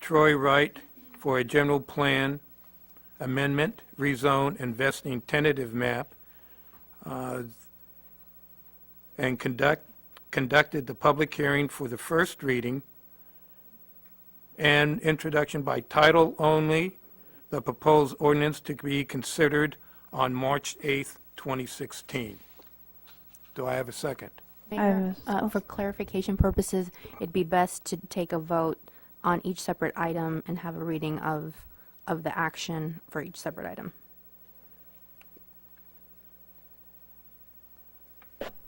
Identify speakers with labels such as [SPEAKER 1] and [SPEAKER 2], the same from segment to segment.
[SPEAKER 1] Troy Wright for a general plan amendment, rezone, and vesting tentative map, uh, and conduct, conducted the public hearing for the first reading and introduction by title only, the proposed ordinance to be considered on March 8th, 2016. Do I have a second?
[SPEAKER 2] Mayor,
[SPEAKER 3] I was-
[SPEAKER 2] uh, for clarification purposes, it'd be best to take a vote on each separate item and have a reading of, of the action for each separate item.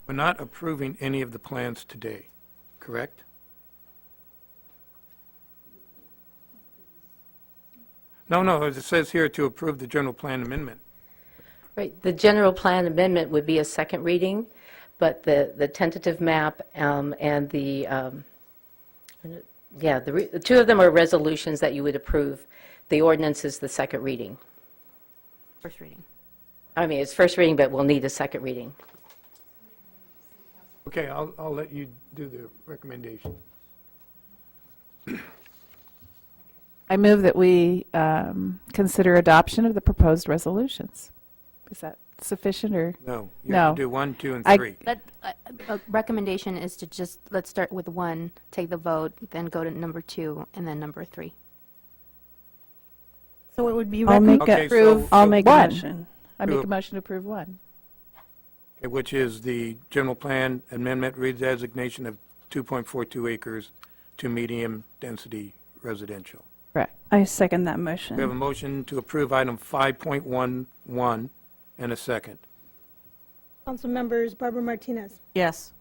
[SPEAKER 1] We're not approving any of the plans today, correct? No, no, it says here to approve the general plan amendment.
[SPEAKER 4] Right, the general plan amendment would be a second reading, but the, the tentative map um, and the, um, yeah, the, re- the two of them are resolutions that you would approve. The ordinance is the second reading.
[SPEAKER 2] First reading.
[SPEAKER 4] I mean, it's first reading, but we'll need a second reading.
[SPEAKER 1] Okay, I'll, I'll let you do the recommendation.
[SPEAKER 3] I move that we um, consider adoption of the proposed resolutions. Is that sufficient, or?
[SPEAKER 1] No, you have to
[SPEAKER 3] No.
[SPEAKER 1] do one, two, and
[SPEAKER 3] I-
[SPEAKER 1] three.
[SPEAKER 2] But uh, a recommendation is to just, let's start with one, take the vote, then go to number two, and then number three.
[SPEAKER 5] So it would be
[SPEAKER 6] I'll
[SPEAKER 5] recommended.
[SPEAKER 6] make
[SPEAKER 1] Okay,
[SPEAKER 6] a,
[SPEAKER 1] so-
[SPEAKER 6] I'll make a
[SPEAKER 3] One.
[SPEAKER 6] motion.
[SPEAKER 3] I
[SPEAKER 1] To
[SPEAKER 3] make
[SPEAKER 1] ap-
[SPEAKER 3] a motion to approve one.
[SPEAKER 1] Which is the general plan amendment redesignation of 2.42 acres to medium-density residential.
[SPEAKER 3] Correct.
[SPEAKER 6] I second that
[SPEAKER 1] We have a
[SPEAKER 6] motion.
[SPEAKER 1] motion to approve item 5.11 and a second.
[SPEAKER 5] Council members Barbara Martinez,
[SPEAKER 6] Yes.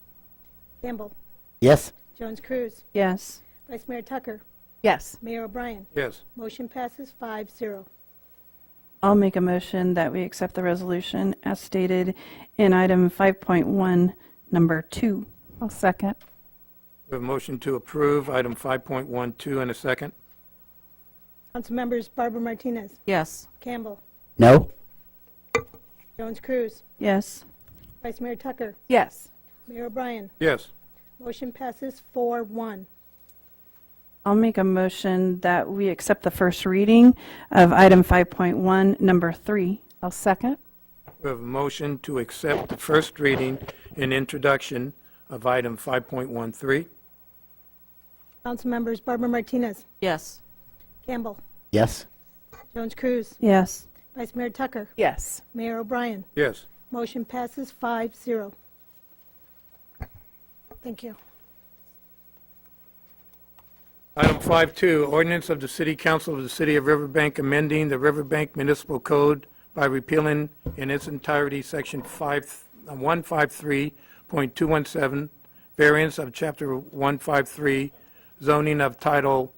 [SPEAKER 5] Campbell,
[SPEAKER 7] yes,
[SPEAKER 5] Jones Cruz,
[SPEAKER 6] Yes.
[SPEAKER 5] Vice Mayor Tucker,
[SPEAKER 3] Yes.
[SPEAKER 5] Mayor O'Brien.
[SPEAKER 1] Yes,
[SPEAKER 5] Motion passes five zero.
[SPEAKER 6] I'll make a motion that we accept the resolution as stated in item 5.1, number 2.
[SPEAKER 3] I'll second.
[SPEAKER 1] we have a motion to approve item 5.12 and a second.
[SPEAKER 5] Council members Barbara Martinez,
[SPEAKER 6] Yes.
[SPEAKER 5] Campbell,
[SPEAKER 7] no,
[SPEAKER 5] Jones Cruz,
[SPEAKER 6] Yes.
[SPEAKER 5] Vice Mayor Tucker,
[SPEAKER 3] Yes.
[SPEAKER 5] Mayor O'Brien.
[SPEAKER 1] Yes,
[SPEAKER 5] Motion passes four one.
[SPEAKER 6] I'll make a motion that we accept the first reading of item 5.1, number 3.
[SPEAKER 3] I'll second.
[SPEAKER 1] we have a motion to accept the first reading and introduction of item 5.13.
[SPEAKER 5] Council members Barbara Martinez,
[SPEAKER 6] Yes.
[SPEAKER 5] Campbell,
[SPEAKER 7] yes,
[SPEAKER 5] Jones Cruz,
[SPEAKER 6] Yes.
[SPEAKER 5] Vice Mayor Tucker,
[SPEAKER 3] Yes.
[SPEAKER 5] Mayor O'Brien.
[SPEAKER 1] Yes,
[SPEAKER 5] Motion passes five zero. Thank you.
[SPEAKER 1] Item 5.2, ordinance of the City Council of the City of Riverbank amending the Riverbank Municipal Code by repealing in its entirety Section 5 uh, 153.217, variance of Chapter 153, zoning of Title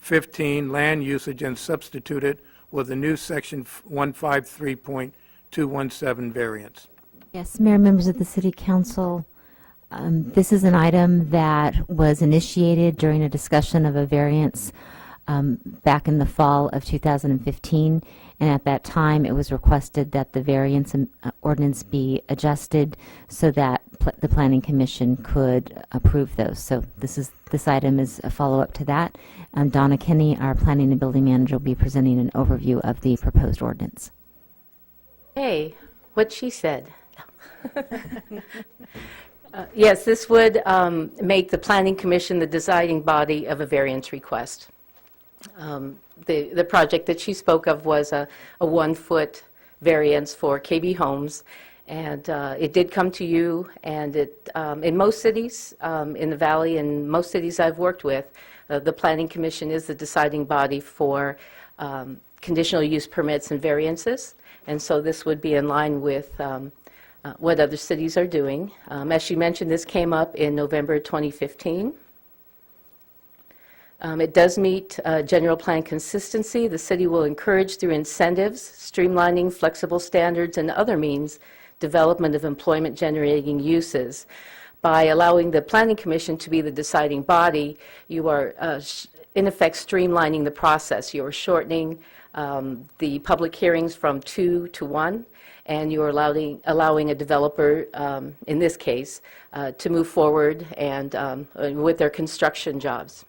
[SPEAKER 1] 15, land usage, and substitute it with a new Section 153.217 variance.
[SPEAKER 8] Yes, Mayor, members of the City Council, um, this is an item that was initiated during a discussion of a variance um, back in the fall of 2015, and at that time, it was requested that the variance um, uh, ordinance be adjusted so that pl- the Planning Commission could approve those. So this is, this item is a follow-up to that. Um, Donna Kenny, our Planning and Building Manager, will be presenting an overview of the proposed ordinance.
[SPEAKER 4] Hey, what she said. Uh, Yes, this would um, make the Planning Commission the deciding body of a variance request. Um, The the project that she spoke of was a a one-foot variance for KB Homes, and uh, it did come to you, and it, um, in most cities, um, in the valley, in most cities I've worked with, uh, the Planning Commission is the deciding body for um, conditional use permits and variances, and so this would be in line with um, uh, what other cities are doing. Um, As she mentioned, this came up in November 2015. Um, It does meet uh, general plan consistency. The city will encourage through incentives, streamlining, flexible standards, and other means, development of employment-generating uses. By allowing the planning commission to be the deciding body, you are, uh, sh- in effect, streamlining the process. You are shortening um, the public hearings from two to one, and you're allowing, allowing a developer, um, in this case, uh, to move forward and um, uh, with their construction jobs.